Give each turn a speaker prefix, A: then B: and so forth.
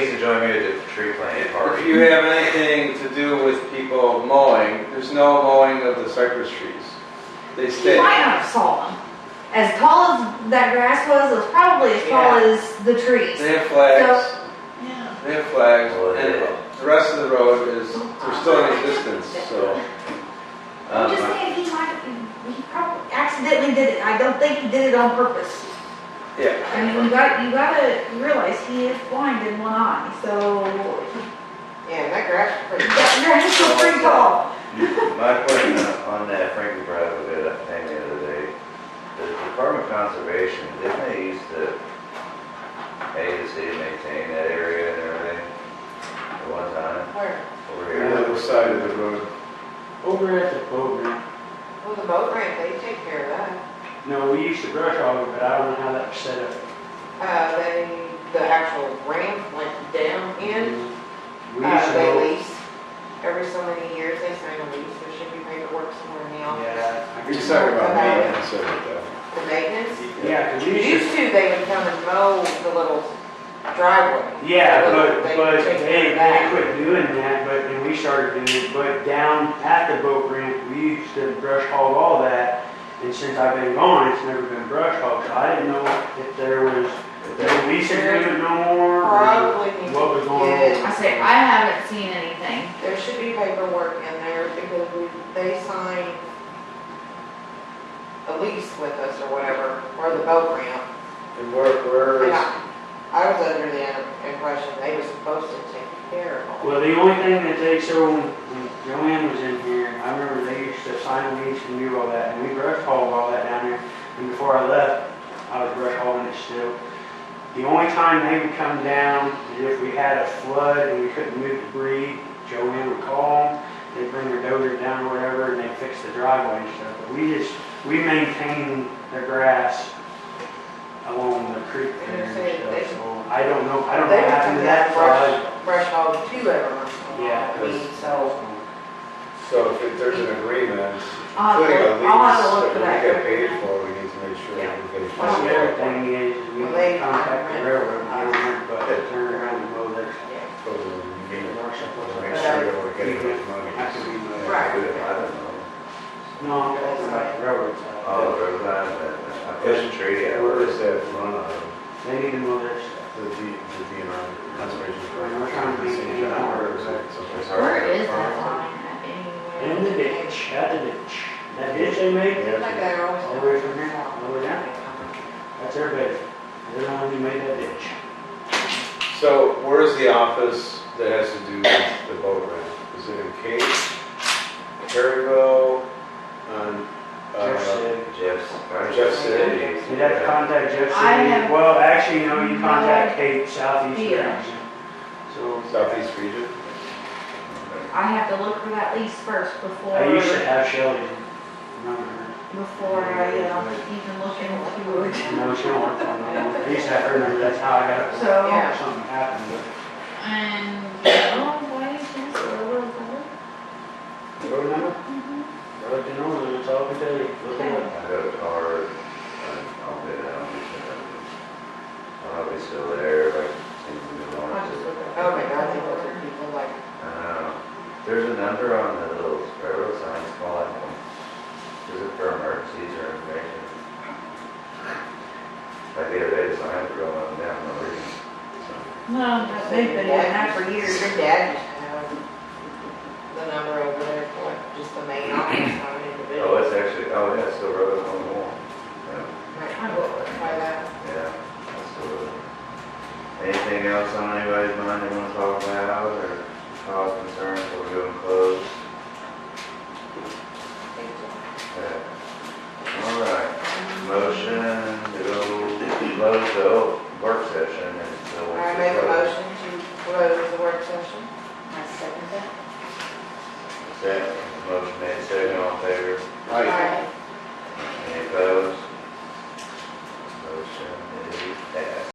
A: join me at the tree planting
B: If
A: party.
B: you have anything to do with people mowing, there's no mowing of the cypress trees. They
C: You
B: stay.
C: might not have saw them. As tall as that grass was, it was probably as tall
D: Yeah.
C: as the trees.
B: They have flags,
D: Yeah.
B: they have flags,
A: Well, there you go.
B: and the rest of the road is, they're still in existence, so.
C: I'm just
B: um,
C: saying, he might, he probably accidentally did it. I don't think he did it on purpose.
B: Yeah,
C: I mean, you got, you gotta realize he is blind in one eye, so
D: Yeah, that grass is pretty.
C: that grass is pretty tall.
A: My question on that Frankie brought up a good thing the other day, the Department of Conservation, didn't they used to pay the city to maintain that area and everything at one time
D: Where?
A: over
E: The
A: here?
E: other side of the road. Over at the boat ramp.
D: Well, the boat ramp, they take care of that.
E: No, we used to brush hog it, but I don't know how that was set up.
D: Uh, they, the actual ramp went down in,
E: We used
D: uh,
E: to.
D: they
E: mow-
D: lease. Every so many years, they sign a lease, there should be paperwork somewhere in the office.
E: Yeah. I
B: you're
E: guess-
B: just talking about maintenance of it though.
D: The maintenance,
E: Yeah, 'cause we used
D: used
E: to,
D: to, they would come and mow the little driveway.
E: yeah, but,
D: They
E: but
D: would take care
E: they,
D: of
E: they
D: that.
E: quit doing that, but then we started doing it, but down at the boat ramp, we used to brush hog all that. And since I've been gone, it's never been brush hogged, so I didn't know if there was, if there was lease agreement no more, or
D: Probably need
E: what was going on.
D: Yeah.
C: I say, I haven't seen anything.
D: There should be paperwork in there because we, they sign a lease with us or whatever, or the boat ramp.
B: And where, where
D: And
B: is,
D: I I was under the impression they were supposed to take care of all.
E: Well, the only thing that they, so when Joanne was in here, I remember they used to sign lease and do all that, and we brush hauled all that down there. And before I left, I was brush hauling it still. The only time they would come down is if we had a flood and we couldn't move debris, Joanne would call them, they'd bring their dozer down or whatever, and they'd fix the driveway and stuff. But we just, we maintain the grass along the creek there and stuff, so I don't know, I
D: They
E: don't know
D: would
E: what
D: come
E: happened
D: down
E: to that
D: and
E: flood.
D: brush, brush hog too every once in a
E: Yeah,
D: while. I mean, so.
B: so if there's an agreement,
C: I'll have
B: including a
C: to-
B: lease,
C: I'll
B: that
C: have to look
B: we
C: for that.
B: get paid for, we need to make sure
C: Yeah.
B: that we get
E: Well, the
B: paid
E: other thing is, is we contact the railroad, I don't remember, but they turn around and go there.
B: for totally. Make
E: That
B: sure that we're getting enough
E: could
B: money.
E: be the.
D: Right.
A: I don't know.
E: No, I'm talking about the railroad
A: Oh,
E: side.
A: the road line, uh, I pushed a tree out. Um,
B: Where is that run on?
E: They need to know their stuff.
B: The D, the DNR, conservation.
E: We're trying to be-
B: Conservation.
C: Where is that line at anywhere?
E: In the ditch, out the ditch. That ditch they made,
D: Like that are always.
E: all the way from here, all the way down, that's their bed. They're the ones who made that ditch.
B: So where is the office that has to do with the boat ramp? Is it in Cape, Perryville, on,
E: Jeff
B: uh,
E: said,
A: Jeff's.
B: Jeff City?
E: you'd have to contact Jeff
C: I have-
E: City. Well, actually, no, you contact Kate Southeast
C: Yeah.
E: Region. So.
B: Southeast Region?
C: I have to look for that lease first before,
E: I used to have Shelley remember her.
C: before I, uh, even look into it.
E: No, she don't work for me. anymore. I used to have her number, that's how I got it.
C: So,
D: Yeah.
E: Something happened,
C: and, oh, why is this, or what is that?
E: but. You remember? I looked it over, that's all I can tell you. Look it up.
A: I got a card, I- I'll bid it out. I don't know if it's still there, but seems to be
C: I'll
A: long.
C: just look it
D: Oh
C: up.
D: my God, they look at people like,
A: Uh, There's a number on the little railroad sign, it's called, is it for emergencies or information? Like the other day, the signs were going up and down, no reason. So,
C: No, they've been doing that for
D: here's
C: years.
D: your dad used to have the number over there for just the main office, not an individual.
A: Oh, it's actually, oh, yeah, it's still railroad on the wall. Yeah,
D: Might try that.
A: yeah, it's still railroad. Anything else on anybody's mind they wanna talk about, or cause concern before we go and close? Okay. All right, motion to go close the o- work session until.
D: I make a motion to close the work session. I second that.
A: Second, motion made, second, all in favor?
B: Right.
D: Aye.